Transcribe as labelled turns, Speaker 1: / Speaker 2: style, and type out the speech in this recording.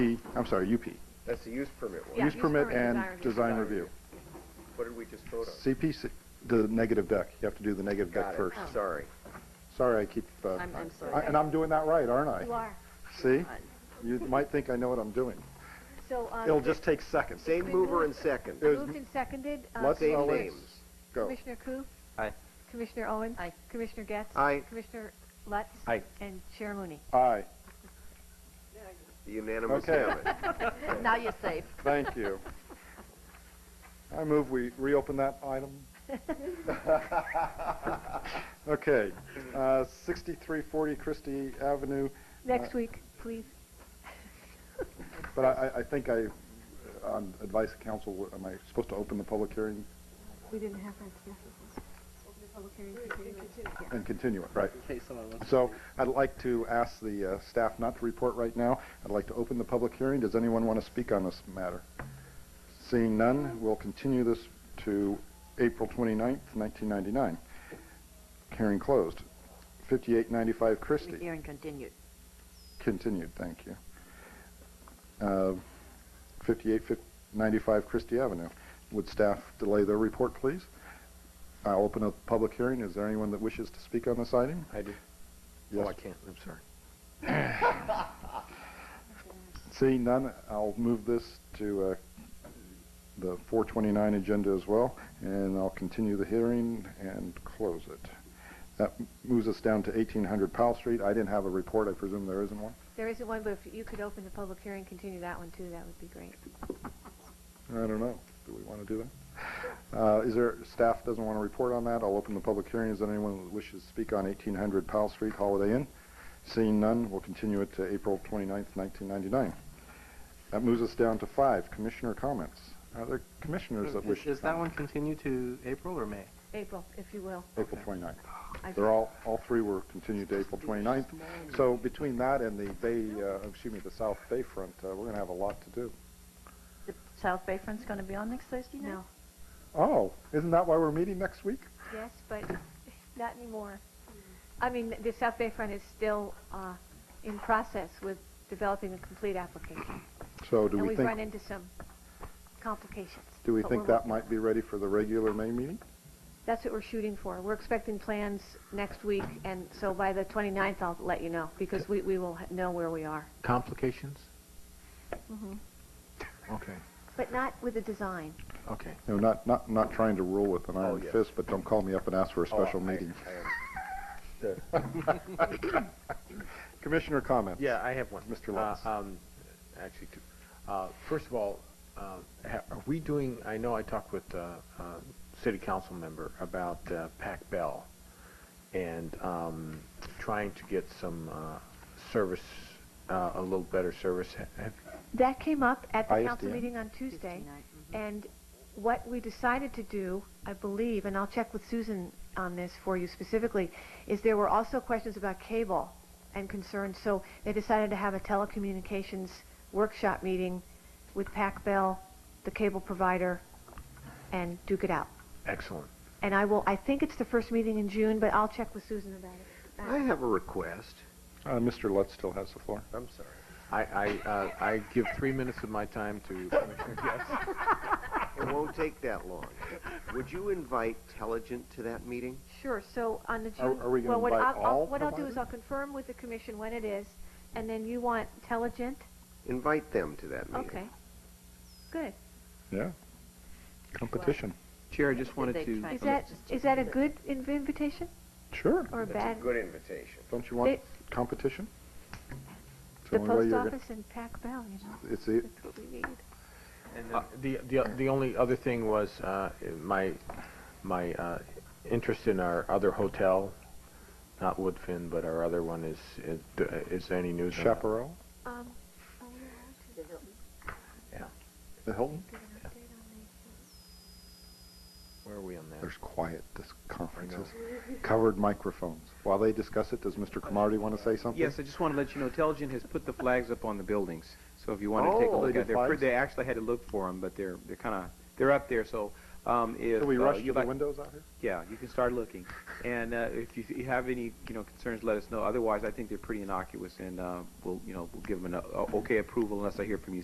Speaker 1: P, I'm sorry, UP.
Speaker 2: That's the use permit
Speaker 3: Yeah,
Speaker 2: one.
Speaker 1: Use permit and design review.
Speaker 2: What did we just vote on?
Speaker 1: CPC, the negative deck, you have to do the negative
Speaker 2: Got
Speaker 1: deck
Speaker 2: it.
Speaker 1: first.
Speaker 2: Sorry.
Speaker 1: Sorry, I keep, uh,
Speaker 3: Oh. I'm- I'm sorry.
Speaker 1: I- and I'm doing that right, aren't I?
Speaker 3: You are.
Speaker 1: See? You might think I know what I'm doing.
Speaker 3: So, um.
Speaker 1: It'll just take seconds.
Speaker 2: Same mover and second.
Speaker 1: There's-
Speaker 4: Moved and seconded. uh,
Speaker 1: Let's
Speaker 2: Same
Speaker 1: always-
Speaker 2: names.
Speaker 1: Go.
Speaker 4: Commissioner Koo?
Speaker 5: Aye.
Speaker 4: Commissioner Owen?
Speaker 3: Aye.
Speaker 4: Commissioner Getz?
Speaker 2: Aye.
Speaker 4: Commissioner Lutz?
Speaker 5: Aye.
Speaker 4: And Chair Looney?
Speaker 1: Aye,
Speaker 2: The unanimous
Speaker 1: Okay.
Speaker 2: have it.
Speaker 3: Now you're safe.
Speaker 1: thank you. I move we reopen that item. Okay, uh, 6340 Christie Avenue, Uh,
Speaker 4: Next week, please.
Speaker 1: but I, I- I think I, on advice of council, am I supposed to open the public hearing
Speaker 4: We didn't have our discussion.
Speaker 1: and continue it, right? So I'd like to ask the uh, staff not to report right now. I'd like to open the public hearing. Does anyone want to speak on this matter? Seeing none, we'll continue this to April 29th, 1999. Hearing closed. 5895 Christie.
Speaker 3: Hearing continued.
Speaker 1: Continued, thank you. Uh, 5895 Christie Avenue. Would staff delay their report, please? I'll open up the public hearing. Is there anyone that wishes to speak on this item?
Speaker 5: I do.
Speaker 1: Yes.
Speaker 5: Oh, I can't. I'm sorry.
Speaker 1: Seeing none, I'll move this to uh, the 429 agenda as well, and I'll continue the hearing and close it. That m- moves us down to 1800 Powell Street. I didn't have a report. I presume there isn't one.
Speaker 4: There isn't one, but if you could open the public hearing, continue that one too, that would be great.
Speaker 1: I don't know. Do we want to do that? Uh, Is there, staff doesn't want to report on that. I'll open the public hearing. Is there anyone that wishes to speak on 1800 Powell Street, Holiday Inn? Seeing none, we'll continue it to April 29th, 1999. That moves us down to five, commissioner comments. Are there commissioners that wish? to
Speaker 5: Is that
Speaker 1: comment?
Speaker 5: one continued to April or May?
Speaker 4: April, if you will.
Speaker 1: April 29th.
Speaker 4: I-
Speaker 1: They're all, all three were continued to April 29th. So between that and the Bay, uh, excuse me, the South Bayfront, uh, we're going to have a lot to do.
Speaker 3: The South Bayfront's gonna be on next Thursday night?
Speaker 4: No.
Speaker 1: Oh, isn't that why we're meeting next week?
Speaker 4: Yes, but not anymore. I mean, the South Bay Front is still, uh, in process with developing a complete application.
Speaker 1: So do
Speaker 4: And
Speaker 1: we
Speaker 4: we've run
Speaker 1: think,
Speaker 4: into some complications.
Speaker 1: do we
Speaker 4: but
Speaker 1: think
Speaker 4: we're
Speaker 1: that
Speaker 4: working-
Speaker 1: might be ready for the regular May meeting?
Speaker 4: That's what we're shooting for. We're expecting plans next week, and so by the 29th, I'll let you know, because we, we will ha- know where we are.
Speaker 5: Complications? Okay,
Speaker 4: But not with the design.
Speaker 5: okay.
Speaker 1: No, not, not, not trying to rule with an
Speaker 2: Oh,
Speaker 1: iron
Speaker 2: yes.
Speaker 1: fist, but don't call me up and ask for a special
Speaker 2: Oh, I-
Speaker 1: meeting.
Speaker 2: I am-
Speaker 1: Commissioner comments?
Speaker 5: Yeah, I have one.
Speaker 1: Mr.
Speaker 5: Uh,
Speaker 1: Lutz.
Speaker 5: um, Actually, two. Uh, First of all, uh, ha- are we doing, I know I talked with uh, uh, city council member about uh, Pac Bell and um, trying to get some uh, service, uh, a little better service. Ha- have-
Speaker 4: That came up at the council
Speaker 1: ISDN.
Speaker 4: meeting on Tuesday, and what we decided to do, I believe, and I'll check with Susan on this for you specifically, is there were also questions about cable and concerns, so they decided to have a telecommunications workshop meeting with Pac Bell, the cable provider, and duke it out.
Speaker 5: Excellent.
Speaker 4: And I will, I think it's the first meeting in June, but I'll check with Susan about it.
Speaker 2: I have a request.
Speaker 1: Uh, Mr. Lutz still has the floor.
Speaker 2: I'm sorry.
Speaker 5: I, I, uh, I give three minutes of my time to Commissioner Guest.
Speaker 2: It won't take that long. Would you invite Telligent to that meeting?
Speaker 4: Sure, so on the
Speaker 1: Are-
Speaker 4: June...
Speaker 1: are we gonna
Speaker 4: well, what
Speaker 1: invite
Speaker 4: I'll- I'll-
Speaker 1: all
Speaker 4: What I'll do
Speaker 1: providers?
Speaker 4: is I'll confirm with the commission when it is, and then you want Telligent?
Speaker 2: Invite them to that meeting.
Speaker 4: Okay. Good.
Speaker 1: Yeah. Competition.
Speaker 6: Chair, I just
Speaker 3: they
Speaker 6: wanted to,
Speaker 3: try-
Speaker 4: Is that, is that a good inv- invitation
Speaker 1: Sure.
Speaker 4: or a
Speaker 2: That's
Speaker 4: bad?
Speaker 2: a good invitation.
Speaker 1: Don't you want
Speaker 4: It-
Speaker 1: competition? It's
Speaker 4: The
Speaker 1: only way
Speaker 4: post
Speaker 1: you're
Speaker 4: office and Pac Bell, you know,
Speaker 1: gonna- It's the,
Speaker 4: that's what we need.
Speaker 5: Uh, The, the, the only other thing was, uh, my, my, uh, interest in our other hotel, not Woodfin, but our other one is, is, is there any news on that?
Speaker 1: Chaparral,
Speaker 4: Um, oh, yeah,
Speaker 5: Yeah.
Speaker 1: the Hilton.
Speaker 4: I'll get an update on
Speaker 5: Where are we on that?
Speaker 1: There's quiet. This conference is covered microphones. While they discuss it, does Mr. Cromartie want to say something?
Speaker 6: yes, I just want to let you know, Telgen has put the flags up on the buildings. So if you want to take a
Speaker 1: Oh,
Speaker 6: look
Speaker 1: they
Speaker 6: at
Speaker 1: did
Speaker 6: them,
Speaker 1: flags?
Speaker 6: they actually had to look for them, but they're, they're kind of, they're up there. So Um, if,
Speaker 1: Can we
Speaker 6: uh,
Speaker 1: rush
Speaker 6: you
Speaker 1: to the
Speaker 6: like-
Speaker 1: windows out here?
Speaker 6: Yeah, you can start looking. And uh, if you, you have any, you know, concerns, let us know. Otherwise, I think they're pretty innocuous, and uh, we'll, you know, we'll give them an uh, okay approval unless I hear from you